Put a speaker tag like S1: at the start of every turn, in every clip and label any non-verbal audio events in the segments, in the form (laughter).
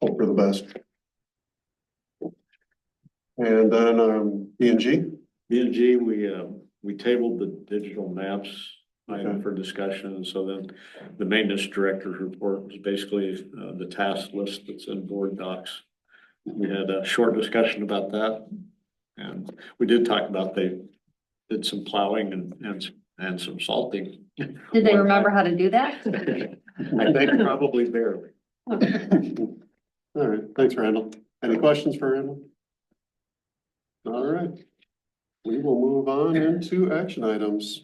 S1: the best. And then, um, B and G,
S2: B and G, we, uh, we tabled the digital maps item for discussion, and so then the maintenance director's report was basically, uh, the task list that's in board docs. We had a short discussion about that, and we did talk about they did some plowing and, and, and some salting.
S3: Did they remember how to do (laughs) that?
S2: I think probably barely.
S1: all right, thanks, Randall. Any questions for Randall? All right. We will move on into action items.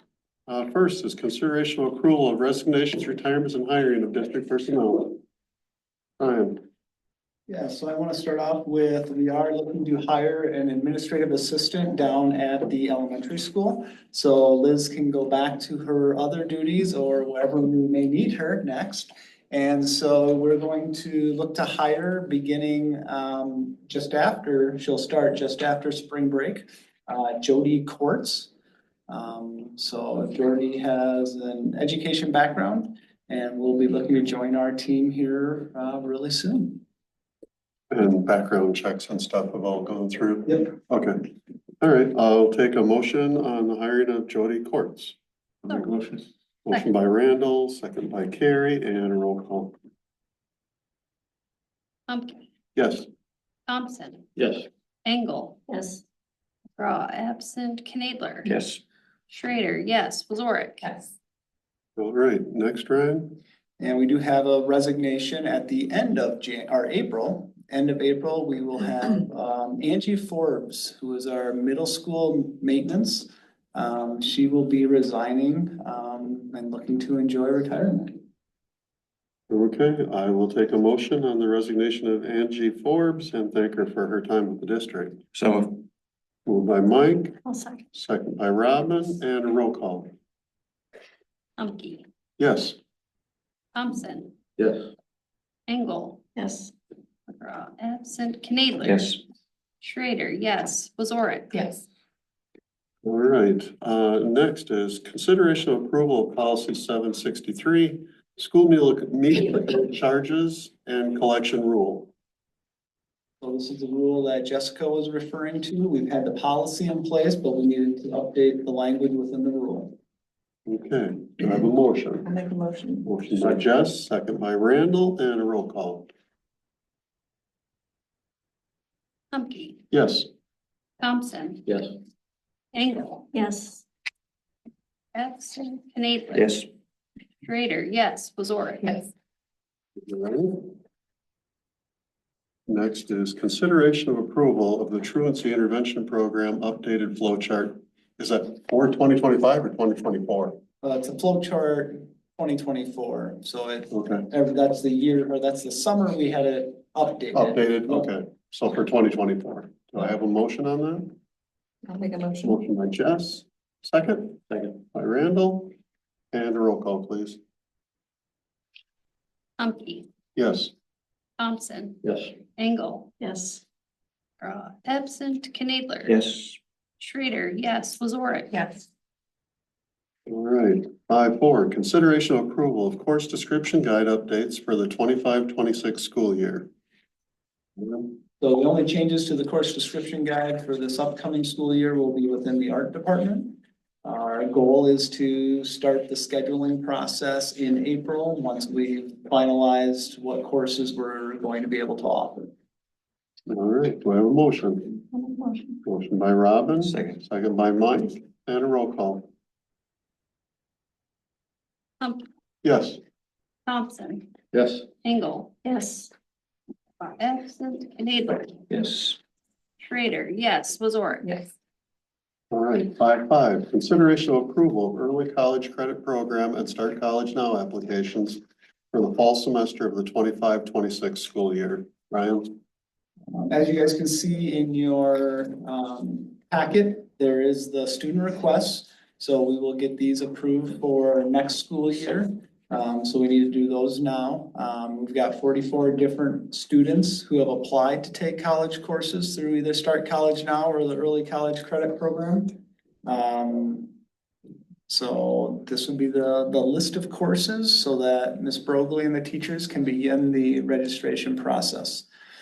S1: Uh, first is consideration of accrual of resignations, retirements, and hiring of district personnel. Ryan,
S4: Yeah, so I want to start off with, we are looking to hire an administrative assistant down at the elementary school. So Liz can go back to her other duties or wherever we may need her next. And so we're going to look to hire beginning um, just after, she'll start just after spring break, uh, Jody Courts. Um, So Jody has an education background and will be looking to join our team here uh, really soon.
S1: and background checks and stuff have all gone through.
S4: Yep.
S1: Okay, all right, I'll take a motion on the hiring of Jody Courts.
S2: I'll make a motion.
S1: Motion by Randall, second by Carrie, and a roll call.
S3: Pumpkin,
S1: Yes,
S3: Thompson,
S2: Yes.
S3: Engel. Yes. McGraw, absent, Knadler.
S2: Yes.
S3: Schrader, yes, Wasorick. Yes.
S1: all right, next Ryan,
S4: And we do have a resignation at the end of Jan, or April, end of April, we
S5: (clears throat)
S4: will have um, Angie Forbes, who is our middle school maintenance. Um, she will be resigning um, and looking to enjoy retirement.
S1: okay, I will take a motion on the resignation of Angie Forbes and thank her for her time with the district.
S2: So.
S1: Moved by Mike,
S3: I'll second.
S1: second by Robin, and a roll call.
S3: Humke,
S1: Yes,
S3: Thompson,
S2: Yes.
S3: Engel. Yes. McGraw, absent, Knadler. Schrader, yes, Wasorick. Yes.
S1: all right, uh, next is consideration of approval of policy seven sixty-three, school meal, meal charges and collection rule.
S4: So this is the rule that Jessica was referring to. We've had the policy in place, but we needed to update the language within the rule.
S1: Okay, do I have a motion?
S5: I'll make a motion.
S1: Motion by Jess, second by Randall, and a roll call.
S3: Humke,
S1: Yes,
S3: Thompson,
S2: Yes.
S3: Engel,
S5: Yes.
S3: absent, Knadler.
S2: Yes.
S3: Schrader, yes, Wasorick.
S5: Yes.
S1: next is consideration of approval of the truancy intervention program updated flow chart. Is that for twenty twenty-five or twenty twenty-four?
S4: Uh, it's a flow chart twenty twenty-four, so it,
S1: Okay,
S4: every- that's the year, or that's the summer we had it updated.
S1: updated, okay, so for twenty twenty-four. Do I have a motion on that?
S5: I'll make a motion.
S1: Motion by Jess, second
S2: Second.
S1: by Randall, and a roll call, please.
S3: Humke,
S1: Yes,
S3: Thompson,
S2: Yes.
S3: Engel, Uh,
S5: Yes.
S3: McGraw, absent, Knadler.
S2: Yes.
S3: Schrader, yes. Wasorick.
S5: Yes.
S1: all right. Five four, consideration of approval of course description guide updates for the 25-26 school year.
S4: So the only changes to the course description guide for this upcoming school year will be within the art department. Our goal is to start the scheduling process in April, once we've finalized what courses we're going to be able to offer.
S1: All right, do I have a motion?
S5: I'll make a motion.
S1: Motion by Robin,
S2: Second.
S1: second by Mike, and a roll call.
S3: Humke,
S1: Yes,
S3: Thompson,
S2: Yes.
S3: Engel,
S5: Yes.
S3: uh, absent, Knadler,
S2: Yes.
S3: Schrader, yes, Wasorick.
S5: Yes.
S1: all right, five five, consideration of approval of early college credit program and start college now applications for the fall semester of the 25-26 school year. Ryan?
S4: As you guys can see in your um, packet, there is the student requests. So we will get these approved for next school year. Um, So we need to do those now. Um, We've got forty-four different students who have applied to take college courses through either Start College Now or the Early College Credit Program. Um, So this would be the, the list of courses so that Ms. Brogley and the teachers can begin the registration process.